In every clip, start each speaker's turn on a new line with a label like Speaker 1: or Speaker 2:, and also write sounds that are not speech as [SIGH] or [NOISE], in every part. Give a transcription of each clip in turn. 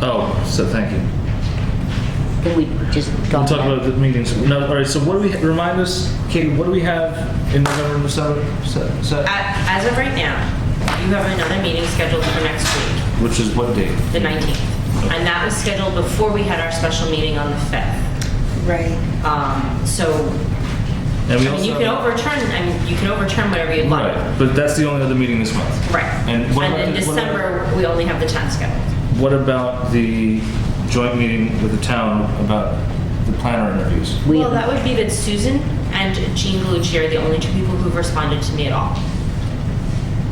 Speaker 1: Oh, so thank you.
Speaker 2: Can we just go?
Speaker 1: We'll talk about the meetings. No, all right, so what do we, remind us, Katie, what do we have in November and December? So- so-
Speaker 3: A- As of right now, you have another meeting scheduled for next week,
Speaker 1: Which is what date?
Speaker 3: the 19th. And that was scheduled before we had our special meeting on the 5th.
Speaker 4: Right.
Speaker 3: Um, So, I
Speaker 1: And we
Speaker 3: mean, you
Speaker 1: also-
Speaker 3: can overturn, I mean, you can overturn whatever you'd like.
Speaker 1: Right, but that's the only other meeting this month.
Speaker 3: Right.
Speaker 1: And what about
Speaker 3: in
Speaker 1: the- what about-
Speaker 3: December, we only have the 10th scheduled.
Speaker 1: What about the joint meeting with the town about the planner interviews?
Speaker 2: We-
Speaker 3: Well, that would be that Susan and Jean Galucci are the only two people who've responded to me at all.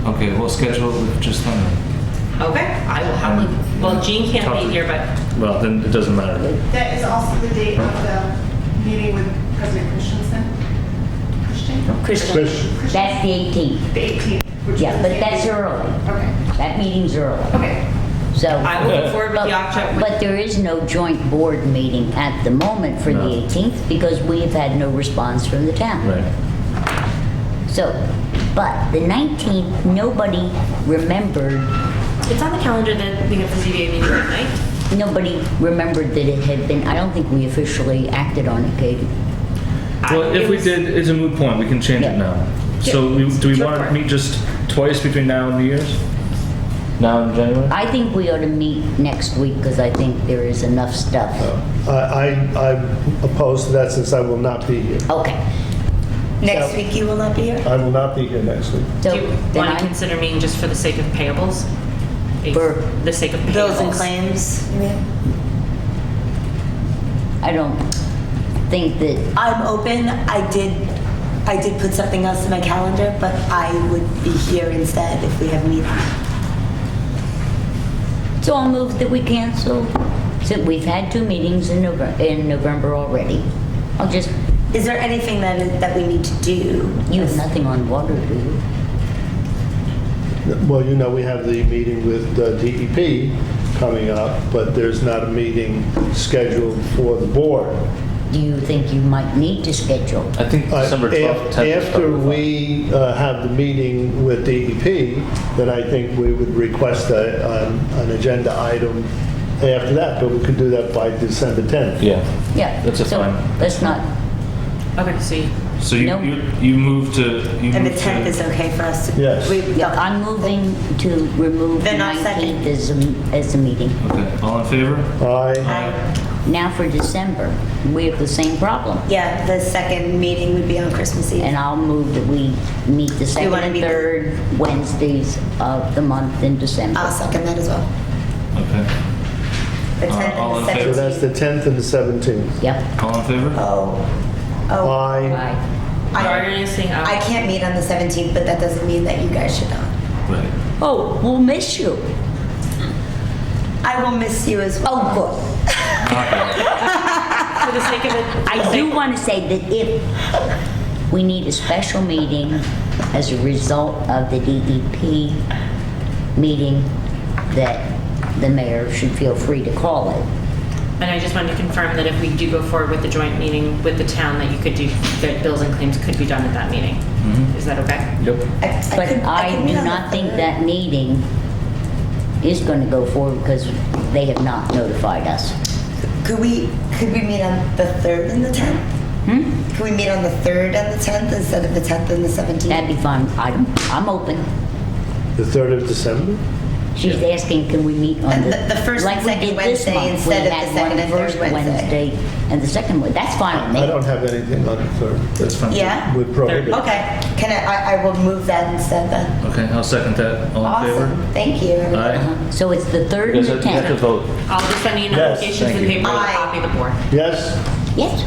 Speaker 1: Okay, we'll schedule it with just them.
Speaker 3: Okay, I will have, well, Jean can't
Speaker 1: Talk to-
Speaker 3: be here, but,
Speaker 1: Well, then it doesn't matter.
Speaker 4: That is also the date of the meeting with President Christensen. Christian?
Speaker 2: Christian, that's the 18th.
Speaker 4: The 18th. which
Speaker 2: Yeah,
Speaker 4: is
Speaker 2: but
Speaker 4: the
Speaker 2: that's
Speaker 4: 18th.
Speaker 2: early.
Speaker 4: Okay,
Speaker 2: That meeting's early,
Speaker 4: okay.
Speaker 2: so.
Speaker 3: I will move forward with the
Speaker 2: But
Speaker 3: October.
Speaker 2: but there is no joint board meeting at the moment for the
Speaker 1: No.
Speaker 2: 18th because we have had no response from the town.
Speaker 1: Right.
Speaker 2: So, but the 19th, nobody remembered,
Speaker 3: It's on the calendar that we have the ZBA meeting at night.
Speaker 2: nobody remembered that it had been, I don't think we officially acted on it, Katie.
Speaker 1: Well, if we did, it's a moot point, we can change it
Speaker 2: Yeah.
Speaker 1: now. So we- do we
Speaker 3: Sure.
Speaker 1: want to meet just twice between now and New Year's? Now and January?
Speaker 2: I think we ought to meet next week because I think there is enough stuff.
Speaker 5: I, I- I'm opposed to that since I will not be here.
Speaker 2: Okay,
Speaker 4: Next
Speaker 2: So-
Speaker 4: week you will not be here?
Speaker 5: I will not be here next week.
Speaker 2: so
Speaker 3: Do you
Speaker 2: then
Speaker 3: want to
Speaker 2: I'm,
Speaker 3: consider meeting just for the sake of payables?
Speaker 2: For-
Speaker 3: The sake of payables.
Speaker 4: Bills and claims.
Speaker 2: I don't think that
Speaker 6: I'm open. I did, I did put something else in my calendar, but I would be here instead if we have meetings.
Speaker 2: So I'll move that we cancel, since we've had two meetings in November, in November already. I'll just,
Speaker 6: Is there anything that, is- that we need to do?
Speaker 2: you have nothing on water, do you?
Speaker 5: Well, you know, we have the meeting with uh, DEP coming up, but there's not a meeting scheduled for the board.
Speaker 2: Do you think you might need to schedule?
Speaker 1: I think
Speaker 5: Uh,
Speaker 1: December
Speaker 5: af-
Speaker 1: 12th, 10th. is
Speaker 5: After
Speaker 1: probably fine.
Speaker 5: we uh, have the meeting with DEP, then I think we would request a- an an agenda item after that, but we could do that by December 10th.
Speaker 1: Yeah.
Speaker 2: Yeah.
Speaker 1: That's a
Speaker 2: so
Speaker 1: fine.
Speaker 2: Let's not,
Speaker 3: Okay, so you-
Speaker 1: So you,
Speaker 2: No.
Speaker 1: you, you move to. You
Speaker 6: And the
Speaker 1: move to-
Speaker 6: 10th is okay for us? to-
Speaker 5: Yes.
Speaker 6: we-
Speaker 2: yeah, I'm moving to remove the
Speaker 6: Then I'll
Speaker 2: 19th
Speaker 6: second.
Speaker 2: as a, as a meeting.
Speaker 1: Okay, all in favor?
Speaker 5: Aye.
Speaker 2: Now for December, we have the same problem.
Speaker 6: Yeah, the second meeting would be on Christmas Eve.
Speaker 2: And I'll move that we meet the second
Speaker 6: wanna
Speaker 2: and
Speaker 6: meet the-
Speaker 2: third Wednesdays of the month in December.
Speaker 6: I'll second that as well.
Speaker 1: Okay.
Speaker 6: The
Speaker 1: Uh,
Speaker 6: 10th
Speaker 1: all in
Speaker 6: and the
Speaker 1: favor?
Speaker 5: So that's the
Speaker 6: 17th.
Speaker 5: 10th and the 17th.
Speaker 2: Yep.
Speaker 1: All in favor?
Speaker 6: Oh, oh.
Speaker 1: Uh,
Speaker 5: Aye.
Speaker 3: You're
Speaker 6: I,
Speaker 3: already saying,
Speaker 6: I
Speaker 3: uh,
Speaker 6: can't meet on the 17th, but that doesn't mean that you guys should not.
Speaker 1: Right.
Speaker 2: Oh, we'll miss you.
Speaker 6: I will miss you as well.
Speaker 2: Oh, good.
Speaker 3: for the sake of it.
Speaker 2: [LAUGHS] I do want to say that if we need a special meeting as a result of the DEP meeting, that the mayor should feel free to call it.
Speaker 3: And I just wanted to confirm that if we do go forward with the joint meeting with the town, that you could do, that bills and claims could be done at that meeting.
Speaker 1: Mm-hmm.
Speaker 3: Is that okay?
Speaker 1: Yep.
Speaker 6: I- I
Speaker 2: But
Speaker 6: could-
Speaker 2: I
Speaker 6: could
Speaker 2: do
Speaker 6: meet on the
Speaker 2: not think
Speaker 6: third.
Speaker 2: that meeting is going to go forward because they have not notified us.
Speaker 6: Could we, could we meet on the 3rd and the 10th?
Speaker 2: Hmm?
Speaker 6: Can we meet on the 3rd and the 10th instead of the 10th and the 17th?
Speaker 2: That'd be fine. I'm, I'm open.
Speaker 5: The 3rd of December?
Speaker 2: She's asking, can we meet on the...
Speaker 6: The- the first and
Speaker 2: like we
Speaker 6: second
Speaker 2: did this
Speaker 6: Wednesday
Speaker 2: month,
Speaker 6: instead
Speaker 2: we
Speaker 6: of the
Speaker 2: had one
Speaker 6: second and third
Speaker 2: first
Speaker 6: Wednesday.
Speaker 2: And the second one, that's fine with me.
Speaker 5: I don't have anything on the 3rd.
Speaker 1: That's fine.
Speaker 6: Yeah?
Speaker 5: Would prohibit.
Speaker 6: Okay. Can I, I, I will move that instead then.
Speaker 1: Okay, I'll second that. All in
Speaker 6: Awesome.
Speaker 1: favor?
Speaker 6: Thank you.
Speaker 1: Aye.
Speaker 2: Uh-huh. So it's the third and
Speaker 1: Because
Speaker 2: the
Speaker 1: you have to
Speaker 2: tenth.
Speaker 1: vote.
Speaker 3: I'll just send you an
Speaker 5: Yes,
Speaker 3: application
Speaker 1: thank
Speaker 3: for the
Speaker 1: you.
Speaker 3: paper and
Speaker 6: Aye.
Speaker 3: copy the board.
Speaker 5: Yes?
Speaker 2: Yes,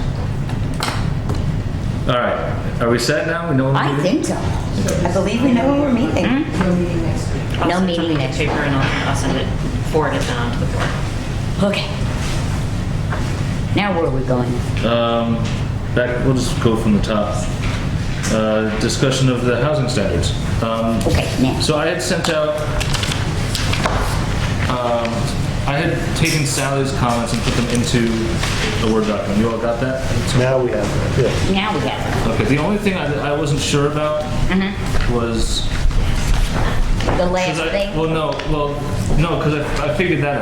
Speaker 1: All right. Are we set now? We know. what we're
Speaker 2: I
Speaker 1: doing?
Speaker 2: think so.
Speaker 6: I believe we know when we're meeting.
Speaker 2: Hmm?
Speaker 3: I'll
Speaker 2: No
Speaker 3: send
Speaker 2: meeting
Speaker 3: something to
Speaker 2: next
Speaker 3: Paper and I'll, I'll send it, forward it down to the board.
Speaker 2: Okay. Now where are we going?
Speaker 1: Um, back. We'll just go from the top. Uh, discussion of the housing standards. Um,
Speaker 2: Okay, now.
Speaker 1: So I had sent out, um, I had taken Sally's comments and put them into a Word document. You all got that?
Speaker 5: Now we have it, yeah.
Speaker 2: Now we have
Speaker 1: Okay, the only thing I, I wasn't sure about was.
Speaker 2: the
Speaker 1: 'cause
Speaker 2: last
Speaker 1: I-
Speaker 2: thing.
Speaker 1: Well, no, well, no, because I, I figured that